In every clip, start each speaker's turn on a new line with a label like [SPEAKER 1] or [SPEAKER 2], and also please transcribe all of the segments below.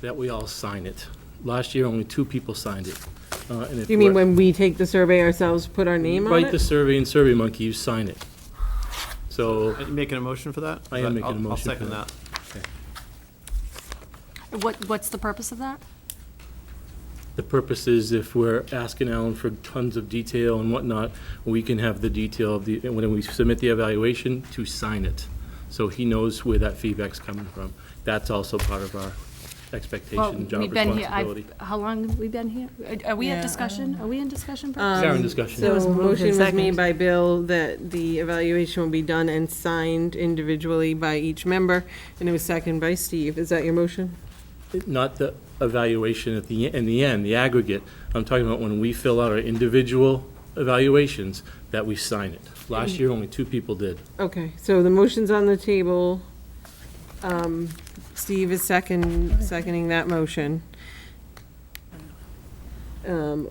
[SPEAKER 1] that we all sign it. Last year, only two people signed it. uh, and if
[SPEAKER 2] You mean
[SPEAKER 1] we're-
[SPEAKER 2] when we take the survey ourselves, put our name on
[SPEAKER 1] Write the
[SPEAKER 2] it?
[SPEAKER 1] survey and Survey Monkey, you sign it. So,
[SPEAKER 3] Are you making a motion for that?
[SPEAKER 1] I am making a
[SPEAKER 3] I'll-
[SPEAKER 1] motion
[SPEAKER 3] I'll
[SPEAKER 1] for
[SPEAKER 3] second
[SPEAKER 1] that.
[SPEAKER 3] that.
[SPEAKER 4] What, what's the purpose of that?
[SPEAKER 1] the purpose is if we're asking Alan for tons of detail and whatnot, we can have the detail of the, and when we submit the evaluation, to sign it. So he knows where that feedback's coming from. That's also part of our
[SPEAKER 4] Well,
[SPEAKER 1] expectation, job
[SPEAKER 4] we've been here. I've-
[SPEAKER 1] responsibility.
[SPEAKER 4] How long have we been here? Uh, Are- Are we
[SPEAKER 5] Yeah, I
[SPEAKER 4] at
[SPEAKER 5] don't
[SPEAKER 4] discussion? Are we in discussion?
[SPEAKER 1] Is
[SPEAKER 4] purposes?
[SPEAKER 1] there any discussion?
[SPEAKER 2] So
[SPEAKER 5] was moved
[SPEAKER 2] motion
[SPEAKER 5] and
[SPEAKER 2] was made
[SPEAKER 5] seconded.
[SPEAKER 2] by Bill that the evaluation will be done and signed individually by each member, and it was seconded by Steve. Is that your motion?
[SPEAKER 1] Not the evaluation at the, in the end, the aggregate. I'm talking about when we fill out our individual evaluations, that we sign it. Last year, only two people did.
[SPEAKER 2] Okay, so the motion's on the table. Um, Steve is second, seconding that motion. Um,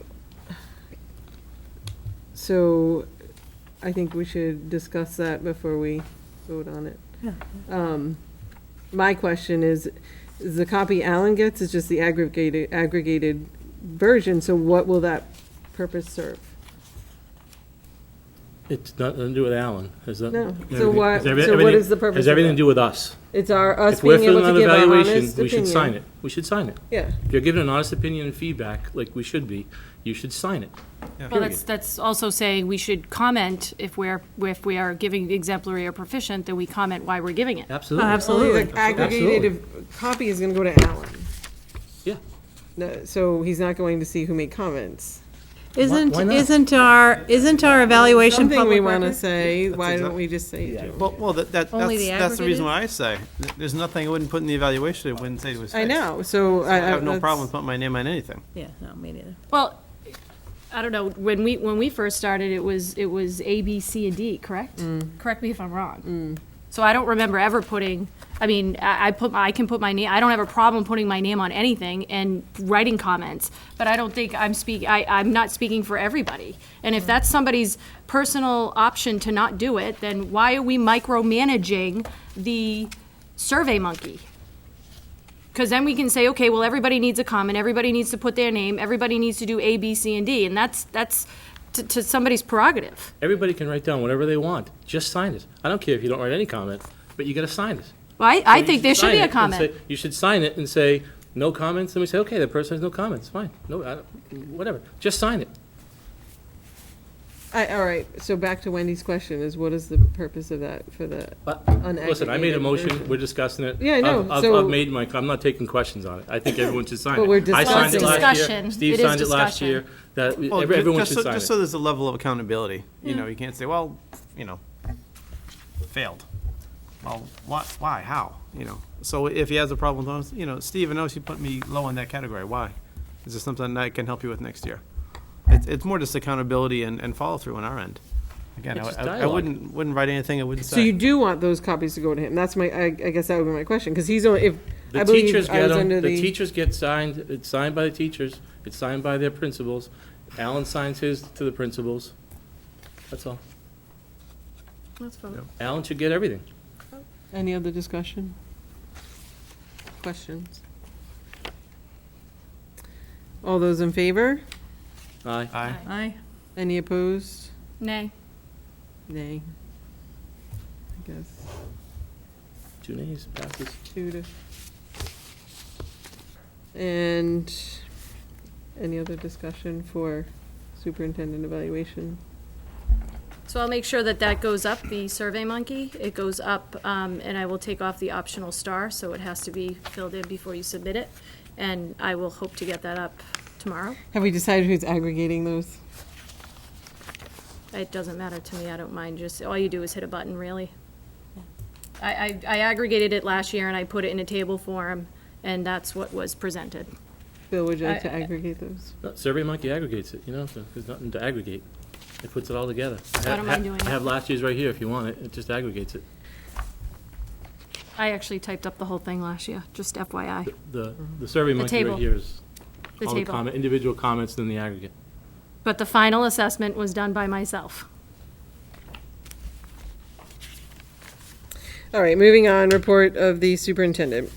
[SPEAKER 2] So I think we should discuss that before we vote on it.
[SPEAKER 5] Yeah.
[SPEAKER 2] Um, My question is, is the copy Alan gets is just the aggregated, aggregated version, so what will that purpose serve?
[SPEAKER 1] It's not, nothing to do with Alan. Has that?
[SPEAKER 2] No, so
[SPEAKER 1] Everything-
[SPEAKER 2] why,
[SPEAKER 1] has every-
[SPEAKER 2] so what
[SPEAKER 1] everything-
[SPEAKER 2] is the purpose of
[SPEAKER 1] Has everything
[SPEAKER 2] that?
[SPEAKER 1] to do with us.
[SPEAKER 2] It's our, us
[SPEAKER 1] If we're
[SPEAKER 2] being able
[SPEAKER 1] filling out
[SPEAKER 2] to give our honest opinion.
[SPEAKER 1] evaluation, we should sign it. We should sign it.
[SPEAKER 2] Yeah,
[SPEAKER 1] If you're giving an honest opinion and feedback, like we should be, you should sign it.
[SPEAKER 4] Well, that's, that's also saying we should comment if we're, if we are giving exemplary or proficient, then we comment why we're giving it.
[SPEAKER 1] Absolutely.
[SPEAKER 2] only
[SPEAKER 5] Absolutely.
[SPEAKER 2] the aggregated copy is gonna go to Alan.
[SPEAKER 1] Yeah.
[SPEAKER 2] No, So he's not going to see who made comments.
[SPEAKER 5] Isn't,
[SPEAKER 1] why not?
[SPEAKER 5] isn't our, isn't our evaluation
[SPEAKER 2] Something we
[SPEAKER 5] public
[SPEAKER 2] wanna
[SPEAKER 5] record?
[SPEAKER 2] say, why
[SPEAKER 3] exact-
[SPEAKER 2] don't we just say it?
[SPEAKER 3] Well, well, that, that,
[SPEAKER 5] Only
[SPEAKER 3] that's,
[SPEAKER 5] the
[SPEAKER 3] that's the reason
[SPEAKER 5] aggregated?
[SPEAKER 3] why I say, Th- there's nothing I wouldn't put in the evaluation, I wouldn't say it was
[SPEAKER 2] I
[SPEAKER 3] fixed.
[SPEAKER 2] know, so I.
[SPEAKER 3] I have no
[SPEAKER 2] that's-
[SPEAKER 3] problem with putting my name on anything.
[SPEAKER 5] Yeah, no, me neither.
[SPEAKER 4] Well, I don't know, when we, when we first started, it was, it was A, B, C, and D, correct? Correct me if I'm wrong. So I don't remember ever putting, I mean, I, I put, I can put my name, I don't have a problem putting my name on anything and writing comments, but I don't think I'm speak, I, I'm not speaking for everybody. And if that's somebody's personal option to not do it, then why are we micromanaging the Survey Monkey? Because then we can say, okay, well, everybody needs a comment, everybody needs to put their name, everybody needs to do A, B, C, and D, and that's, that's to, to somebody's prerogative.
[SPEAKER 1] Everybody can write down whatever they want. Just sign it. I don't care if you don't write any comment, but you gotta sign it.
[SPEAKER 4] Well, I, I
[SPEAKER 1] You
[SPEAKER 4] think there should
[SPEAKER 1] sign
[SPEAKER 4] be
[SPEAKER 1] it
[SPEAKER 4] a
[SPEAKER 1] and
[SPEAKER 4] comment.
[SPEAKER 1] say- You should sign it and say, no comments, and we say, okay, the person has no comments, fine, no, I don't- whatever, just sign it.
[SPEAKER 2] I, all right, so back to Wendy's question is what is the purpose of that for the,
[SPEAKER 1] But,
[SPEAKER 2] Unaggregated
[SPEAKER 1] listen, I made a motion,
[SPEAKER 2] version.
[SPEAKER 1] we're discussing it.
[SPEAKER 2] Yeah, I know,
[SPEAKER 1] I've- I've-
[SPEAKER 2] so-
[SPEAKER 1] I've made my, I'm not taking questions on it, I think everyone should sign it.
[SPEAKER 2] But we're
[SPEAKER 1] I signed it
[SPEAKER 2] discussing. Well,
[SPEAKER 1] last
[SPEAKER 2] it's
[SPEAKER 1] year.
[SPEAKER 4] discussion.
[SPEAKER 1] Steve
[SPEAKER 4] It is
[SPEAKER 1] signed it last
[SPEAKER 4] discussion.
[SPEAKER 1] year, that, we-
[SPEAKER 3] Well,
[SPEAKER 1] every-
[SPEAKER 3] ju-
[SPEAKER 1] everyone
[SPEAKER 3] just
[SPEAKER 1] should
[SPEAKER 3] so-
[SPEAKER 1] sign
[SPEAKER 3] Just so
[SPEAKER 1] it.
[SPEAKER 3] there's a level of accountability, you know, you can't say, well, you know, failed. Well, what, why, how, you know? So if he has a problem, with those, you know, Steve, I know you put me low in that category, why? Is this something I can help you with next year? It's, it's more just accountability and, and follow-through on our end. Again, I
[SPEAKER 1] It's
[SPEAKER 3] would-
[SPEAKER 1] just
[SPEAKER 3] I I
[SPEAKER 1] dialogue.
[SPEAKER 3] wouldn't, wouldn't write anything I wouldn't say.
[SPEAKER 2] so you do want those copies to go to him? That's my, I, I guess that would be my question, because he's only, if, I
[SPEAKER 1] The teachers
[SPEAKER 2] believe I
[SPEAKER 1] get
[SPEAKER 2] was
[SPEAKER 1] them,
[SPEAKER 2] under
[SPEAKER 1] the
[SPEAKER 2] the.
[SPEAKER 1] teachers get signed, it's signed by the teachers, it's signed by their principals, Alan signs his to the principals, that's all. Alan should get everything.
[SPEAKER 2] Any other discussion? Questions? All those in favor?
[SPEAKER 1] Aye.
[SPEAKER 3] Aye.
[SPEAKER 5] Aye.
[SPEAKER 2] Any opposed?
[SPEAKER 4] Nay.
[SPEAKER 2] Nay. I guess,
[SPEAKER 1] Two nays, passes.
[SPEAKER 2] two to. And any other discussion for superintendent evaluation?
[SPEAKER 4] So I'll make sure that that goes up, the Survey Monkey, it goes up, um, and I will take off the optional star, so it has to be filled in before you submit it. And I will hope to get that up tomorrow.
[SPEAKER 2] Have we decided who's aggregating those?
[SPEAKER 4] It doesn't matter to me, I don't mind, just, all you do is hit a button, really. I, I, I aggregated it last year and I put it in a table form, and that's what was presented.
[SPEAKER 2] Bill, would you like to
[SPEAKER 4] I- I-
[SPEAKER 2] aggregate those?
[SPEAKER 1] No, Survey Monkey aggregates it, you know, so there's nothing to aggregate. It puts it all together.
[SPEAKER 4] I don't mind doing
[SPEAKER 1] I
[SPEAKER 4] it.
[SPEAKER 1] have last year's right here if you want it, it just aggregates it.
[SPEAKER 4] I actually typed up the whole thing last year, just FYI,
[SPEAKER 1] The, the Survey Monkey right
[SPEAKER 4] table.
[SPEAKER 1] here is
[SPEAKER 4] the
[SPEAKER 1] all the
[SPEAKER 4] table.
[SPEAKER 1] comment, individual comments and then the aggregate.
[SPEAKER 4] But the final assessment was done by myself.
[SPEAKER 2] All right, moving on, report of the superintendent.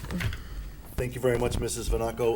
[SPEAKER 6] Thank you very much, Mrs. Vanaco.